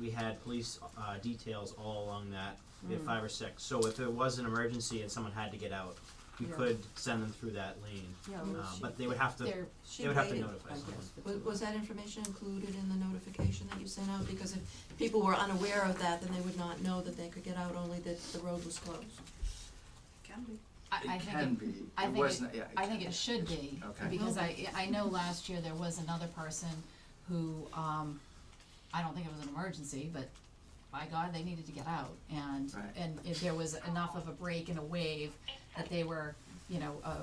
we had police uh, details all along that. We had Mm. five or six. So if there was an emergency and someone had to get out, we Yeah. could send them through that lane. Yeah, Um, well, she, but they would have to. they're, she they would have to waited, notify I someone. guess, for Was, too was that information included in the notification that you sent out? Because if people were unaware of that, then they would not know that they could get out, only that the road was closed. Can be. I, I It think can it, be, I it think was it- not, yeah, I can think be. it should be, Okay. because I, I know last year there was another person who, um, I don't think it was an emergency, but by God, they needed to get out, and, Right. and if there was enough of a break and a wave that they were, you know, a, a,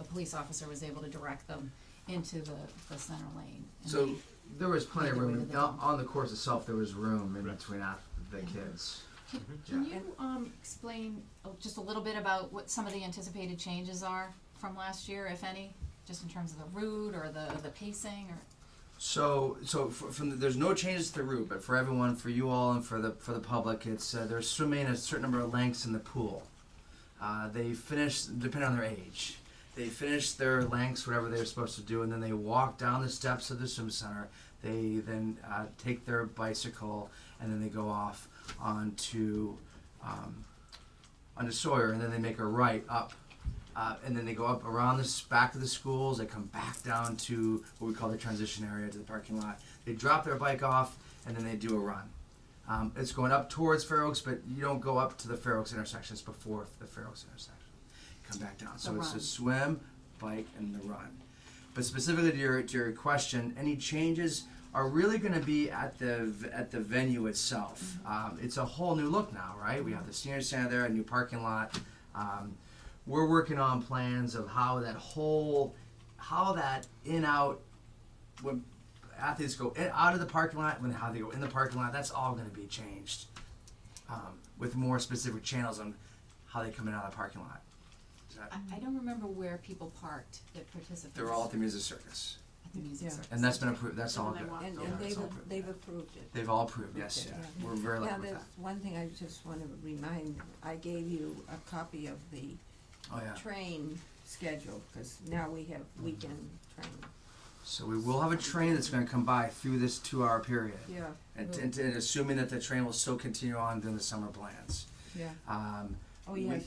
a police officer was able to direct them into the, the center lane. and So they- There was plenty of Either way room to the on, dump. on the course itself. There was room in Right. between af- the kids. Mhm. Can Yeah. you, um, explain uh, just a little bit about what some of the anticipated changes are from last year, if any? Just in terms of the route or the, the pacing or? So, so f from the, there's no changes to the route, but for everyone, for you all, and for the for the public, it's uh, they're swimming a certain number of lengths in the pool. Uh, they finish depending on their age. They finish their lengths, whatever they're supposed to do, and then they walk down the steps of the swim center. They then uh, take their bicycle and then they go off onto um, onto Sawyer, and then they make a right up uh, and then they go up around this back of the schools. They come back down to what we call the transition area to the parking lot. They drop their bike off, and then they do a run. Um, it's going up towards Fair Oaks, but you don't go up to the Fair Oaks intersection. It's before the Fair Oaks intersection. Come back down. So The it's run. a swim, bike, and the run. But specifically to your, to your question, any changes are really going to be at the v- at the venue itself. Mm-hmm. Um, it's a whole new look now, right? We have the senior center there, a new parking lot. Um, we're working on plans of how that whole how that in out when athletes go in, out of the parking lot when how they go in the parking lot that's all going to be changed um, with more specific channels on how they come in and out of the parking lot Is that- I, I don't remember where people parked that participated. they're all at the music circus At the music Yeah. circus. and that's been approved that's all good. And, Yeah, and it's they've, all approved. they've approved it. they've all approved yes Okay. yeah. we're very lucky Now, with there's that one thing I just wanna remind, I gave you a copy of the oh yeah Mm-hmm. train schedule, cause now we have weekend train. so we will have a train that's going to come by through this two hour period Yeah, and, and, and assuming that the train will still continue on during the summer plans yeah. um, Oh, We- yes,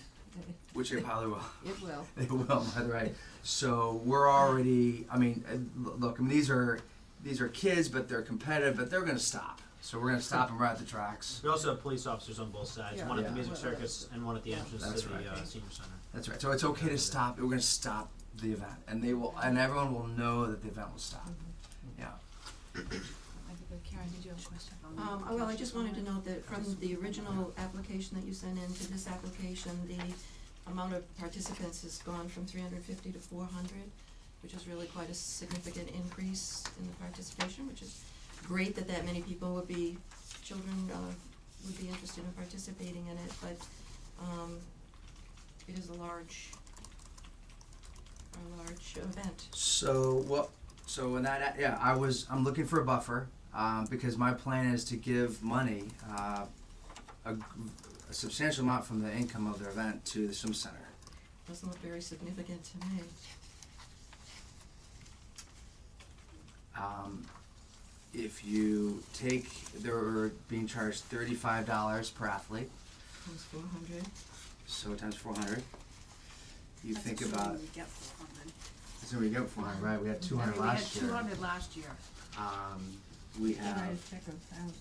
which it probably will it will. They will, by the way. So we're already. I mean, uh, l- look. I mean, these are these are kids, but they're competitive, but they're going to stop. So we're going to stop them right at the tracks. We also have police officers on both sides, Yeah. one at the Yeah. music circus and one at the entrance That's to the right. uh, senior center. That's right. So it's okay to stop. We're going to stop the event, and they will, and everyone will know that the event will stop. Yeah. I think- uh, Karen, did you have a question? Um, oh, well, I just wanted to note that from the original application that you sent in to this application, the amount of participants has gone from three hundred fifty to four hundred, which is really quite a significant increase in the participation, which is great that that many people would be, children, uh, would be interested in participating in it, but, um, it is a large, a large event. So what? So when that, yeah, I was. I'm looking for a buffer um, because my plan is to give money, uh, a, g- a substantial amount from the income of their event to the swim center. Doesn't look very significant to me. Um, if you take, they're being charged thirty-five dollars per athlete, Times four hundred. so times four hundred. You think about, that's what we get for it, right? We had two hundred last year. We had two hundred last year. Um, we have Check a thousand.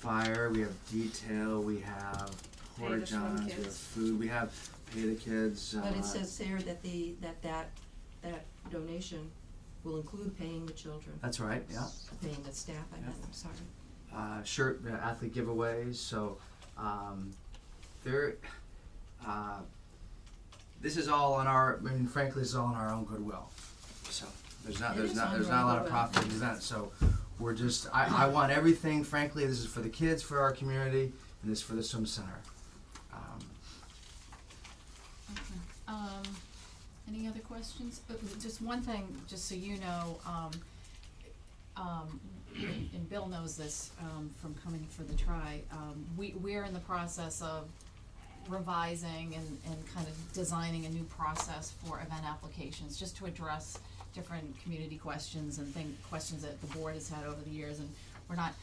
fire, we have detail, we have Pay the porta johns, swim we have kids. food, we have pay the kids, uh, But it says there that the, that that, that donation will include paying the children, That's right, yeah. paying the staff, I meant, I'm sorry. uh, shirt uh, athlete giveaways. So um, there, uh, this is all on our. I mean, frankly, this is all on our own goodwill. So there's not It there's is not on there's your not a own lot of goodwill. profit in the event. So we're just I, I want everything. Frankly, this is for the kids, for our community, and this is for the swim center. Um, Okay. Um, any other questions? Uh, Just one thing, just so you know, um, um, and Bill knows this, um, from coming for the try, um, we, we're in the process of revising and, and kind of designing a new process for event applications, just to address different community questions and thing, questions that the board has had over the years, and we're not